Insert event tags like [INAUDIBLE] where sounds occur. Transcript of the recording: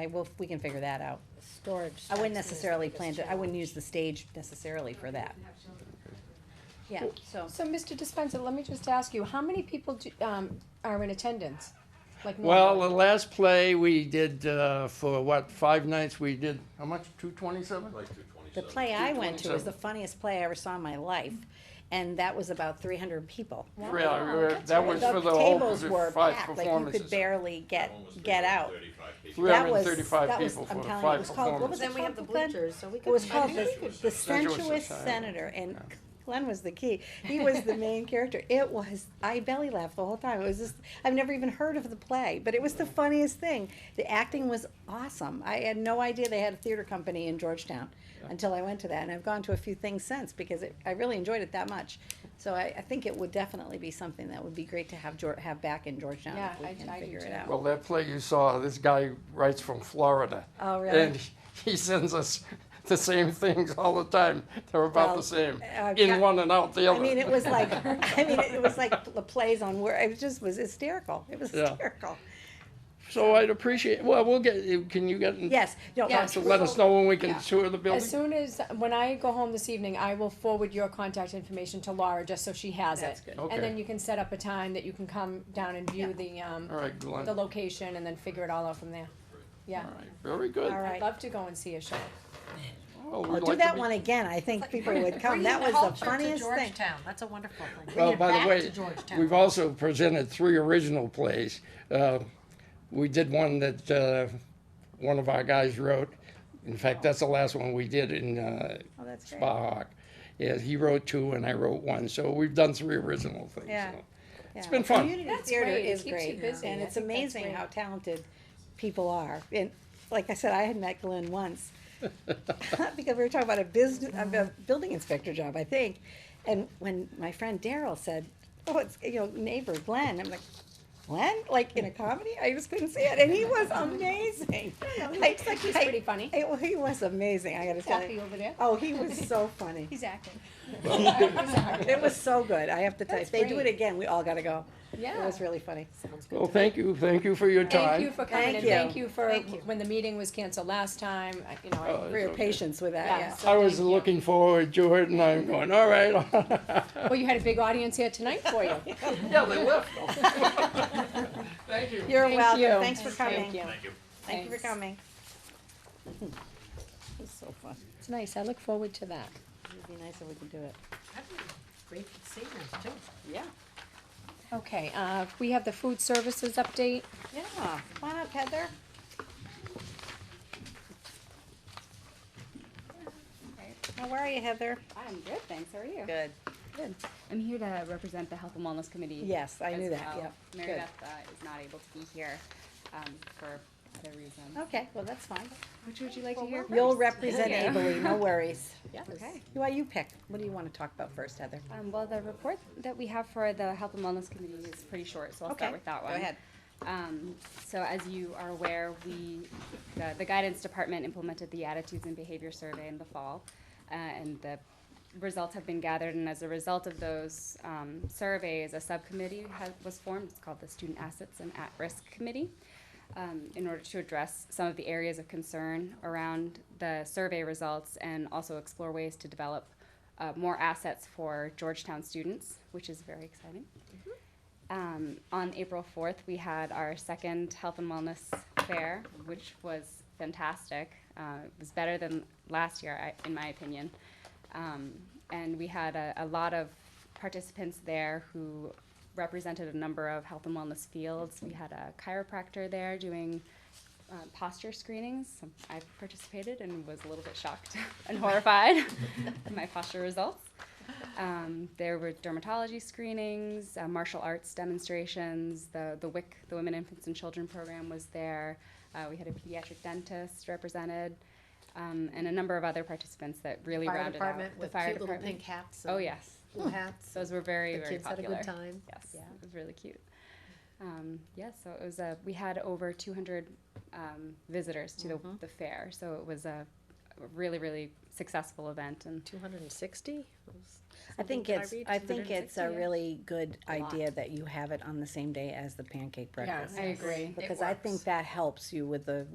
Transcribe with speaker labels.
Speaker 1: I will, we can figure that out.
Speaker 2: Storage.
Speaker 1: I wouldn't necessarily plan to, I wouldn't use the stage necessarily for that. Yeah, so,
Speaker 2: So, Mr. Dispenza, let me just ask you, how many people do, um, are in attendance? Like
Speaker 3: Well, the
Speaker 2: normally?
Speaker 3: last play we did uh, for what five nights we did how much two twenty seven.
Speaker 4: Like two
Speaker 1: the
Speaker 4: twenty-seven.
Speaker 1: play I went to was the funniest play I ever saw in my life, and that was about three hundred people.
Speaker 2: Wow, that's
Speaker 3: that
Speaker 2: right.
Speaker 3: was for the whole
Speaker 1: tables were
Speaker 3: five
Speaker 1: packed, like you
Speaker 3: performances.
Speaker 1: could barely get, get out.
Speaker 3: Three
Speaker 1: That
Speaker 3: hundred and
Speaker 1: was-
Speaker 3: thirty five
Speaker 1: that was-
Speaker 3: people
Speaker 1: I'm
Speaker 3: for
Speaker 1: telling you, it
Speaker 3: five
Speaker 1: was called- what
Speaker 3: performances.
Speaker 1: was
Speaker 5: Then we have the
Speaker 1: Well, then-
Speaker 5: bleachers, so we
Speaker 1: It
Speaker 5: could.
Speaker 1: was called the,
Speaker 4: Sensuous
Speaker 1: the
Speaker 3: Sensuous
Speaker 1: sensuous
Speaker 3: Society.
Speaker 1: senator, and Glenn was the key. He was the main character. It was, I belly laughed the whole time. It was just, I've never even heard of the play, but it was the funniest thing. The acting was awesome. I had no idea they had a theater company in Georgetown until I went to that, and I've gone to a few things since because it, I really enjoyed it that much. So I, I think it would definitely be something that would be great to have Geor- have back in Georgetown
Speaker 2: Yeah,
Speaker 1: if we
Speaker 2: I-
Speaker 1: can
Speaker 2: I do
Speaker 1: figure it
Speaker 2: too.
Speaker 1: out.
Speaker 3: Well, that play you saw, this guy writes from Florida.
Speaker 1: Oh, really?
Speaker 3: And he sends us [LAUGHS] the same things all the time. They're about
Speaker 1: Well,
Speaker 3: the same
Speaker 1: I've
Speaker 3: in
Speaker 1: got-
Speaker 3: one and out the other.
Speaker 1: I mean, it was like, I mean, it was like the plays on where, it just was hysterical. It was
Speaker 3: Yeah.
Speaker 1: hysterical.
Speaker 3: so I'd appreciate. Well, we'll get. Can you get? in
Speaker 1: Yes, no, oh,
Speaker 2: Yeah.
Speaker 3: touch to let us know when we can tour the building.
Speaker 2: As soon as, when I go home this evening, I will forward your contact information to Laura, just so she has it.
Speaker 1: That's good.
Speaker 3: Okay.
Speaker 2: And then you can set up a time that you can come down and view the, um,
Speaker 3: all right, Glenn.
Speaker 2: the location and then figure it all out from there. Yeah,
Speaker 3: All right, very good.
Speaker 1: All right.
Speaker 2: I'd love to go and see a show.
Speaker 3: Well, we'd
Speaker 1: I'll do
Speaker 3: like to
Speaker 1: that
Speaker 3: be-
Speaker 1: one again, I think people would come, that was the funniest thing.
Speaker 5: That's a wonderful thing.
Speaker 3: Well, by the way, we've also presented three original plays. Uh, We did one that uh, one of our guys wrote. In fact, that's the last one we did in uh,
Speaker 1: Oh, that's great.
Speaker 3: Spa Hawk. Yeah, he wrote two and I wrote one, so we've done three original things.
Speaker 1: Yeah.
Speaker 3: so.
Speaker 1: It's
Speaker 3: been fun.
Speaker 1: Community
Speaker 2: That's
Speaker 1: theater
Speaker 2: great. It
Speaker 1: is
Speaker 2: keeps you
Speaker 1: great,
Speaker 2: busy.
Speaker 1: and
Speaker 2: I
Speaker 1: it's
Speaker 2: think that's
Speaker 1: amazing
Speaker 2: great.
Speaker 1: how talented people are, and like I said, I had met Glenn
Speaker 2: [LAUGHS]
Speaker 1: once. Because we were talking about a business, a building inspector job, I think, and when my friend Daryl said, oh, it's, you know, neighbor Glenn, I'm like, Glenn, like in a comedy, I just couldn't see it, and he was
Speaker 2: [LAUGHS]
Speaker 1: amazing. Looks
Speaker 2: like he's pretty funny.
Speaker 1: He was amazing, I gotta tell you.
Speaker 2: over there.
Speaker 1: Oh, he was so funny.
Speaker 2: [LAUGHS] He's acting.
Speaker 3: [LAUGHS]
Speaker 1: It was so good. I have to tell you, if
Speaker 2: That's
Speaker 1: they do it
Speaker 2: great.
Speaker 1: again, we all gotta go. It
Speaker 2: Yeah.
Speaker 1: was really funny.
Speaker 3: Well, thank you, thank you for your
Speaker 2: Thank you
Speaker 3: time.
Speaker 2: for coming
Speaker 1: Thank
Speaker 2: and
Speaker 1: you.
Speaker 2: thank you for,
Speaker 1: Thank you.
Speaker 2: when the meeting was canceled last time, I- you know, I
Speaker 3: Oh,
Speaker 1: For your
Speaker 3: okay.
Speaker 1: patience with that,
Speaker 2: Yeah.
Speaker 1: yes.
Speaker 3: I was
Speaker 2: Thank you.
Speaker 3: looking forward to it and I'm going, all right. [LAUGHS]
Speaker 2: Well, you had a big audience here tonight for you. [LAUGHS]
Speaker 3: Yeah, they left. Thank you.
Speaker 1: You're
Speaker 2: Thank
Speaker 1: welcome.
Speaker 2: you.
Speaker 1: Thanks for
Speaker 2: Thank
Speaker 1: coming.
Speaker 2: you.
Speaker 4: Thank you.
Speaker 1: Thank you for
Speaker 2: Thanks.
Speaker 1: coming. It's so fun.
Speaker 2: It's nice. I look forward to that.
Speaker 1: It'd be nice if we could do it.
Speaker 5: Great seniors too.
Speaker 1: Yeah.
Speaker 2: Okay, uh, we have the food services update.
Speaker 1: Yeah. Come on up, Heather. How are you, Heather?
Speaker 6: I'm good, thanks. How are you?
Speaker 1: Good.
Speaker 6: Good. I'm here to represent the Health and Wellness Committee.
Speaker 1: Yes, I
Speaker 6: as
Speaker 1: knew that,
Speaker 6: well.
Speaker 1: yep.
Speaker 6: Mary
Speaker 1: Good.
Speaker 6: Beth uh, is not able to be here um, for other reasons.
Speaker 1: Okay, well, that's fine.
Speaker 6: Which would you like to hear?
Speaker 1: You'll
Speaker 6: first?
Speaker 1: represent
Speaker 6: Yeah.
Speaker 1: ably, no [LAUGHS] worries.
Speaker 6: Okay.
Speaker 1: Why you pick? What do you want to talk about first, Heather?
Speaker 6: Um, well, the report that we have for the Health and Wellness Committee is pretty short, so I'll
Speaker 1: Okay,
Speaker 6: start with that
Speaker 1: go
Speaker 6: one.
Speaker 1: ahead.
Speaker 6: Um, so as you are aware, we, the, the guidance department implemented the attitudes and behavior survey in the fall, uh, and the results have been gathered, and as a result of those, um, surveys, a subcommittee has, was formed, it's called the Student Assets and At-Risk Committee, um, in order to address some of the areas of concern around the survey results and also explore ways to develop, uh, more assets for Georgetown students, which is very exciting. Um, on April 4th, we had our second health and wellness fair, which was fantastic. Uh, it was better than last year, I, in my opinion. Um, and we had a, a lot of participants there who represented a number of health and wellness fields. We had a chiropractor there doing uh, posture screenings. I participated and was a little bit shocked [LAUGHS] and horrified [LAUGHS] at my posture results. Um, there were dermatology screenings, uh, martial arts demonstrations. The the WIC, the Women, Infants, and Children program was there. Uh, we had a pediatric dentist represented, um, and a number of other participants that really
Speaker 5: Fire
Speaker 6: rounded
Speaker 5: department
Speaker 6: out
Speaker 5: with
Speaker 6: the fire
Speaker 5: cute little
Speaker 6: department.
Speaker 5: pink hats.
Speaker 6: oh
Speaker 5: and
Speaker 6: yes,
Speaker 5: Blue hats.
Speaker 6: those were very
Speaker 5: The
Speaker 6: very
Speaker 5: kids had a
Speaker 6: popular.
Speaker 5: good time.
Speaker 6: Yes,
Speaker 5: Yeah.
Speaker 6: it was really cute. Um, yeah, so it was a we had over 200 um, visitors to
Speaker 5: Mm-hmm.
Speaker 6: the, the fair, so it was a a really really successful event and
Speaker 5: Two hundred and sixty?
Speaker 1: I think it's, I think it's a
Speaker 6: 260, yeah.
Speaker 1: really good
Speaker 5: lot.
Speaker 1: idea that you have it on the same day as the pancake breakfast.
Speaker 6: I agree.
Speaker 1: Because I think that helps you with the